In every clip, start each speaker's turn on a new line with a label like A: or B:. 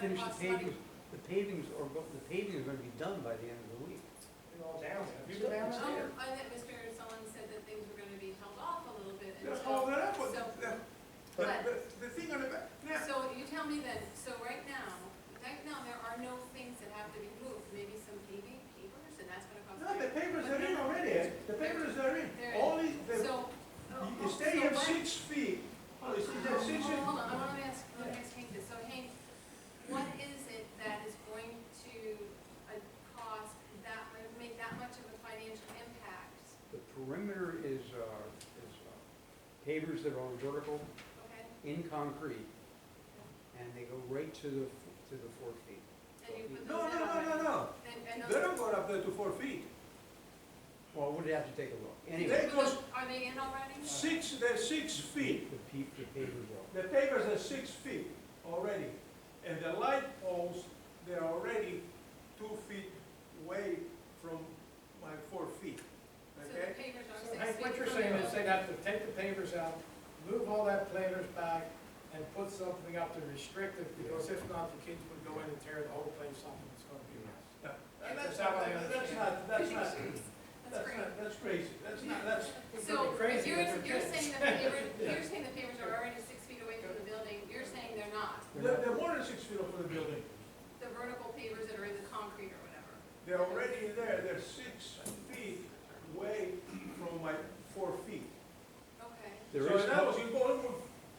A: finish
B: costs
A: the
B: money.
A: paving, the pavings are, go- the paving is gonna be done by the end of the week.
C: all down there.
D: You go down
B: Um,
D: there.
B: I that Mr. Sullivan said that things were gonna be held off a little bit until.
D: Oh, That's all that I
B: so-
D: put, that- but,
B: But,
D: but the thing on the back, now,
B: so you tell me then, so right now, right now, there are no things that have to be moved, maybe some paving papers, and that's gonna cost.
D: no, the papers are in already, eh? the papers are in,
B: There
D: all these, the-
B: So. oh,
D: you- you stay
B: so
D: here
B: what-
D: six feet, oh, you see,
B: Hold
D: that
B: on,
D: six feet.
B: hold on, I wanna ask, I wanna ask Hank this, so Hank, what is it that is going to, uh, cost that, would make that much of a financial impact?
A: The perimeter is, uh, is uh, pavers that are on vertical
B: Okay,
A: in concrete, and they go right to the, f- to the four feet.
B: and you put
D: No,
B: those
D: no,
B: in
D: no, no,
B: already?
D: no,
B: And, and
D: they
B: those,
D: don't go up there to four feet,
A: Well, we'd have to take a look.
D: They
A: Anyway,
B: but
D: go-
B: those- are they in already?
D: six, they're six
A: the
D: feet,
A: pe- the pavers are.
D: the papers are six feet already, and the light poles, they're already two feet away from my four feet,
B: So the
D: okay?
B: pavers are
C: So
B: six
C: Hank, what
B: feet
C: you're
B: from the
C: saying is
B: road.
C: they'd have to take the pavers out, move all that planters back, and put something up to restrict it, because if not, the kids would go in and tear the whole place up, and it's gonna be a mess.
D: No,
C: Yeah,
D: That's
C: that's how I
D: not, that's
C: understand.
D: not, that's not,
B: That's
D: that's
B: great.
D: not, that's crazy, that's not, that's,
C: It's
B: So,
C: gonna be
B: but
C: crazy,
B: you're,
C: but they're
B: you're
C: kids.
B: saying the pavers, you're saying the pavers are already six feet away from the building, you're saying they're not,
D: they're, they're more than six feet off of the building.
B: the vertical pavers that are in the concrete or whatever.
D: They're already there, they're six feet away from my four feet.
B: Okay.
D: So
A: There is,
D: in other words, you go over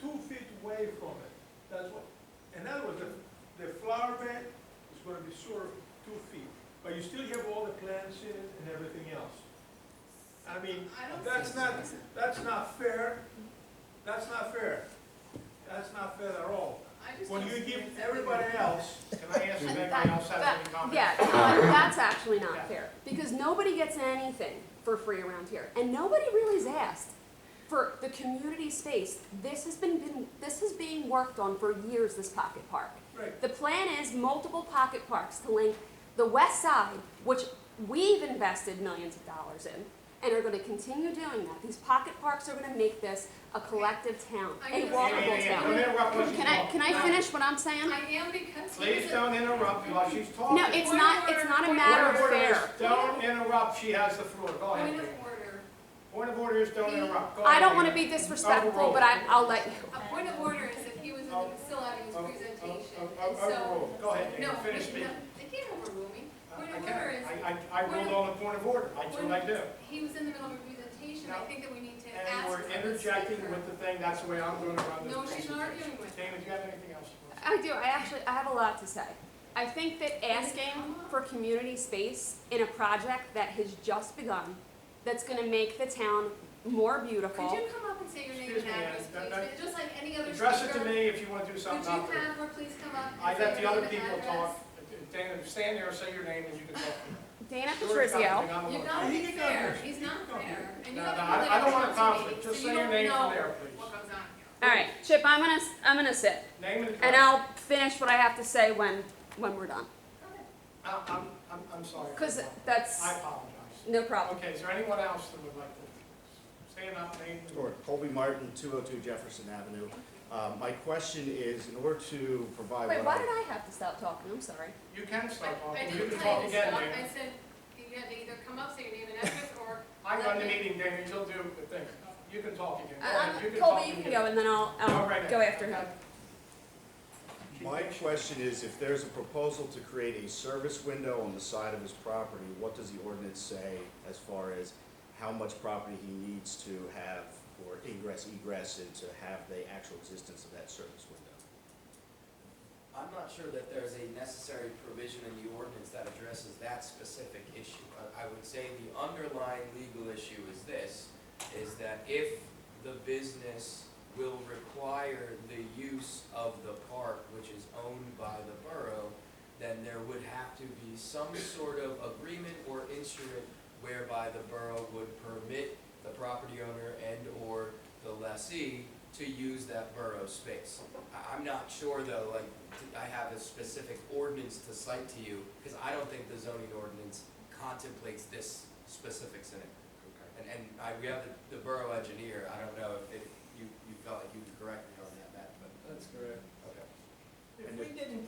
D: two feet away from it, that's what, in other words, the, the flower bed is gonna be sort of two feet, but you still have all the plants in it and everything else. I mean,
B: I don't
D: that's
B: see-
D: not, that's not fair, that's not fair, that's not fair at all.
B: I just
D: When
B: don't
D: you
B: see
D: give
B: it.
D: everybody else,
C: Can I ask if anybody else has any comments?
E: Yeah, no, that's actually not fair, because nobody gets anything for free around here, and nobody really's asked for the community space. This has been, been, this is being worked on for years, this pocket park.
D: right,
E: The plan is multiple pocket parks to link the west side, which we've invested millions of dollars in, and are gonna continue doing that. These pocket parks are gonna make this a collective town,
B: I
E: a
B: guess-
C: Yeah, yeah,
E: walkable
C: yeah,
E: town.
C: don't interrupt while she's
E: Can I,
C: talking.
E: can I finish what I'm saying?
B: I am because he
C: Please
B: was, a-
C: don't interrupt while she's talking.
E: No, it's not, it's not a matter of
C: Point order is
E: fair.
C: Don't interrupt, she has the floor, go
B: point
C: ahead.
B: of order,
C: Point of order is don't interrupt, go ahead.
E: I don't want to
C: Rita.
E: be disrespectful, but I, I'll let you.
B: a point of order is if he was in the facility, his
C: Oh, oh,
B: presentation,
C: oh, oh,
B: and so.
C: overruled. Go ahead,
B: No,
C: David, finish
B: wait,
C: me.
B: no, they can't overrule me.
C: I
B: Point
C: I
B: of
C: can't.
B: order is,
C: I, I, I ruled on a point of order, that's what I do.
B: he was in the middle of a presentation, I
C: No.
B: think that we need to
C: And
B: ask.
C: we're
B: for the
C: interjecting
B: speaker.
C: with the thing, that's the way I'm gonna run this.
B: No, she's not
C: presentation.
B: arguing with.
C: David, do you have anything else? you want to say?
E: I do, I actually, I have a lot to say. I think that asking for community space in a project that has just begun, that's gonna make the town more
B: Could
E: beautiful.
B: you come up and say your name
C: Excuse
B: and
C: me, Ann,
B: address,
C: that-
B: please, just like any other speaker?
C: Address it to me if you wanna do
B: Could
C: something.
B: you
C: after.
B: have her please come up
C: I
B: and say
C: let the
B: your
C: other
B: name
C: people
B: and address?
C: talk. Dana, stand there, say your name, and you can talk.
E: Dana
C: Sure, something,
E: Patrizio,
C: I'm
B: You've
C: alone.
B: got to
D: He
B: be
D: can
B: fair,
D: come here.
B: he's
D: He
B: not
D: can come
B: fair,
D: here.
B: and you
C: No,
B: have
C: no,
B: a
C: I-
B: really
C: I don't want a
B: responsibility,
C: conflict. Just
B: so you
C: say your
B: don't
C: name from
B: know
C: there, please.
B: What goes on here?
E: all right, Chip, I'm gonna, I'm gonna sit,
C: Name and
E: and
C: address.
E: I'll finish what I have to say when, when we're done.
C: I- I'm, I'm, I'm sorry.
E: Cause
C: I
E: that's,
C: apologize.
E: no problem.
C: Okay, is there anyone else that would like to stand up, name? and-
F: Sure, Colby Martin, 202 Jefferson Avenue. Uh, My question is, in order to provide
E: Wait,
F: what
E: why
F: I-
E: did I have to stop talking? I'm sorry.
C: You can stop
B: I-
C: talking,
B: I
C: you
B: didn't
C: can
B: tell
C: talk
B: you to
C: again,
B: stop, I
C: Dana.
B: said, you had to either come up, say your name and address, or,
C: I run the meeting, Dana, you'll do the thing. You can talk again. Go
E: Uh,
C: ahead, you can talk
E: Colby, you can
C: again.
E: go, and then I'll,
C: All right.
E: I'll go after him.
F: My question is, if there's a proposal to create a service window on the side of his property, what does the ordinance say as far as how much property he needs to have, or ingress, egress, and to have the actual existence of that service window?
G: I'm not sure that there's a necessary provision in the ordinance that addresses that specific issue. I- I would say the underlying legal issue is this, is that if the business will require the use of the park, which is owned by the borough, then there would have to be some sort of agreement or instrument whereby the borough would permit the property owner and/or the lessee to use that borough space. I- I'm not sure though, like, t- I have a specific ordinance to cite to you, because I don't think the zoning ordinance contemplates this specifics in it. And, and I, we have the, the borough engineer, I don't know if, if you, you felt like you could correct me on that, Matt, but.
D: That's correct.
G: Okay.
D: If we did